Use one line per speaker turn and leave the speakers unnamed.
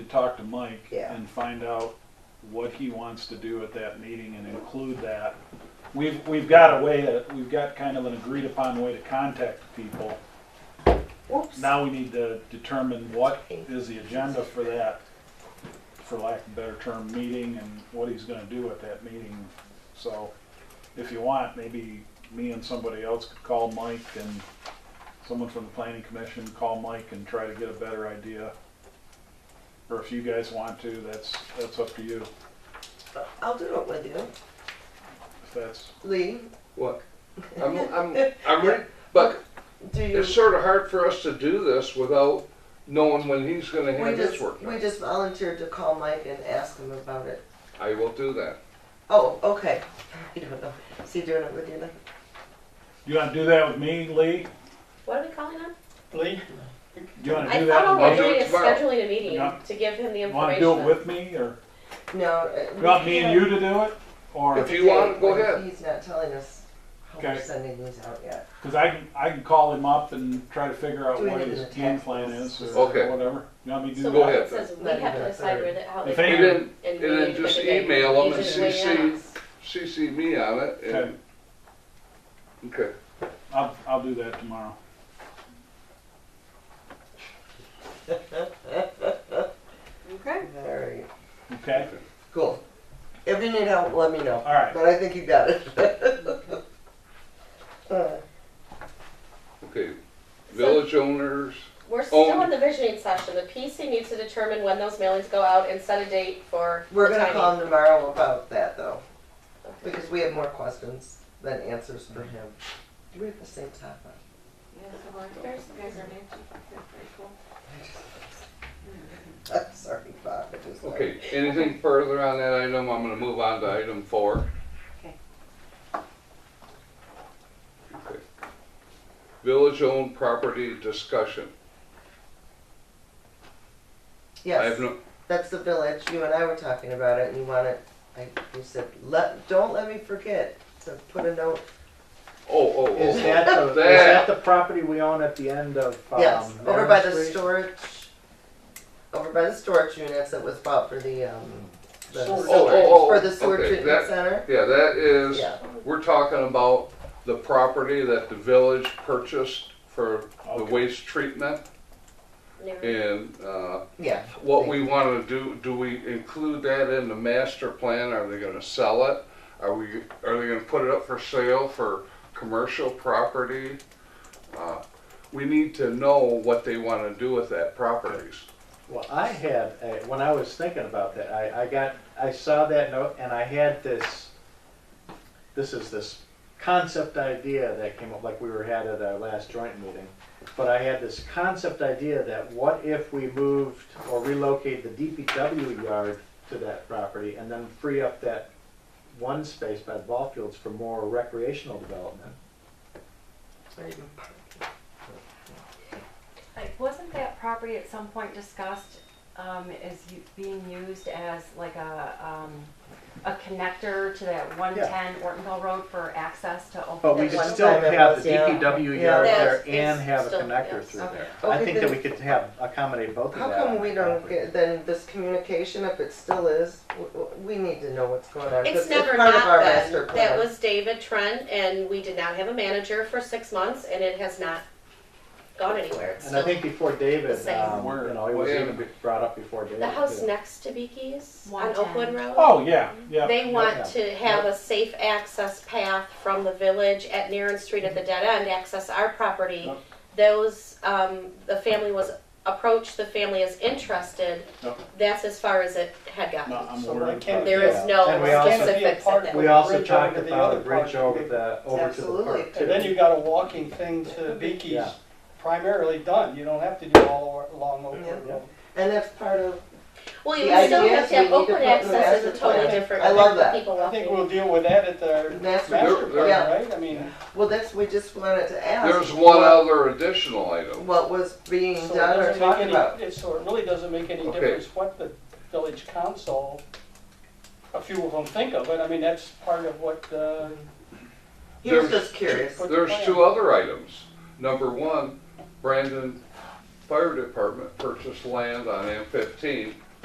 to talk to Mike
Yeah.
and find out what he wants to do at that meeting and include that. We've, we've got a way, to- we've got kind of an agreed upon way to contact people.
Whoops.
Now we need to determine what is the agenda for that, for lack of a better term, meeting and what he's gonna do at that meeting. So if you want, maybe me and somebody else could call Mike and someone from the planning commission, call Mike and try to get a better idea. Or if you guys want to, that's, that's up to you,
I'll do it with you.
if that's,
Lee,
Look, I'm, I'm, I'm ready, but
do you?
it's sort of hard for us to do this without knowing when he's gonna
We
have his
just,
work
we
done.
just volunteered to call Mike and ask him about it.
I will do that.
Oh, okay. I don't know. Is he doing it with you then?
you wanna do that with me, Lee?
What are we calling him?
Lee?
You wanna
I
do
thought
that?
all
with me?
I'll
we're
do
doing
it
is
tomorrow.
scheduling a meeting
Yeah.
to give him the information.
Wanna do it with me, or
No. uh,
you want me and you to do it? Or?
If you want, go
Wait,
ahead.
He's not telling us how we're
Okay.
sending these out yet.
Because I can, I can call him up and try to figure out
Do we
what
need
his
an
game
attack?
plan is or
Okay.
whatever. You want me to do
So
that?
Go
what
ahead,
it says, is we
Let him
have
do
to
it
decide where
third.
the, how
If
they.
any-
And then,
and
and
we
then
need to
just
put the date.
email
You
him and
just weigh in on
CC,
us.
CC me on it and, okay.
I'll, I'll do that tomorrow.
Okay.
Very
Okay?
cool. If you need help, let me know.
All right.
But I think you got it. Uh,
Okay, village owners,
We're still
Oh.
in the visioning session. The PC needs to determine when those mailings go out and set a date for the
We're gonna
timing.
call him tomorrow about that though, because we have more questions than answers for him. Do we have the same top on?
There's- you guys are matching. They're pretty cool.
I'm sorry, Bob, I just.
okay, anything further on that item, I'm gonna move on to item four.
Okay.
Okay. Village-owned property discussion. I have
Yes,
no,
that's the village, you and I were talking about it, and you wanted, I, you said, let, don't let me forget to put a note.
oh, oh, oh,
Is
oh.
that the,
That.
is that the property we own at the end of, um,
Yes, over by the
Merritt Street?
storage, over by the storage units that was bought for the, um, the
Storage.
Oh, oh, oh,
sewer, for the sewer
okay,
treatment
that-
center.
Yeah, that is,
Yeah,
we're talking about the property that the village purchased for the
Okay.
waste treatment
Yeah.
and, uh,
yeah,
what we wanna do, do we include that in the master plan? Are they gonna sell it? Are we, are they gonna put it up for sale for commercial property? Uh, We need to know what they wanna do with that properties.
Well, I had, a- when I was thinking about that, I, I got, I saw that note and I had this, this is this concept idea that came up, like we were had at our last joint meeting. But I had this concept idea that what if we moved or relocated the DPW yard to that property and then free up that one space by the ball fields for more recreational development?
Like, wasn't that property at some point discussed, um, as u- being used as like a, um, a connector to that one ten Ortonville Road for access to open?
But we
that
could
one
still
time it
have
was,
the
yeah.
DPW
Yeah.
yard there
That's-
and
it's
have a
still-
connector
yes.
through there.
Okay.
I think that
Okay,
we could have, accommodate both of
how
that.
come
on
we
the
don't
property.
get, then this communication, if it still is, w- w- we need to know what's going on. 'cause
It's never
part of our
not
master
been. That
plan.
was David Trent and we did not have a manager for six months and it has not gone anywhere. It's
And I
still-
think before David,
Same.
um, you know, it was
Where-
even brought up before David.
The house
too.
next to Biki's on
110.
Oakwood Road.
Oh, yeah, yeah.
They want to have a safe access path from the village at Naren Street at the dead end, access our property.
Yep.
Those, um, the family was approached, the family is interested.
Yep.
That's as far as it had gotten.
No, I'm
So
worried
why can't
about
There
it.
is no
And we also-
specifics at that.
We also talked
Bridge over to the
about a
other
bridge
park.
over the, over to the
Absolutely.
park
And then
too.
you got a walking thing to Beaky's
Yeah.
primarily done, you don't have to do all o- along Oakwood
Yeah.
Road.
And that's part of,
Well, you
The
would still
idea
have
is we
to have
need to
Oakwood
put new
access is a
master
totally
plan.
different.
I love that.
People
I
walking.
think we'll deal with that at the
Master-
master plan,
Yeah.
right? I mean,
well, that's, we just wanted to ask.
There's one
what-
other additional item.
What was being
so it
done or
doesn't make
talked about.
any, it- so it really doesn't make any
Okay.
difference what the village council, a few of them think of it, I mean, that's part of what, uh,
He was
There's-
just curious.
what the
There's
plan-
two other items. Number one, Brandon Fire Department purchased land on M fifteen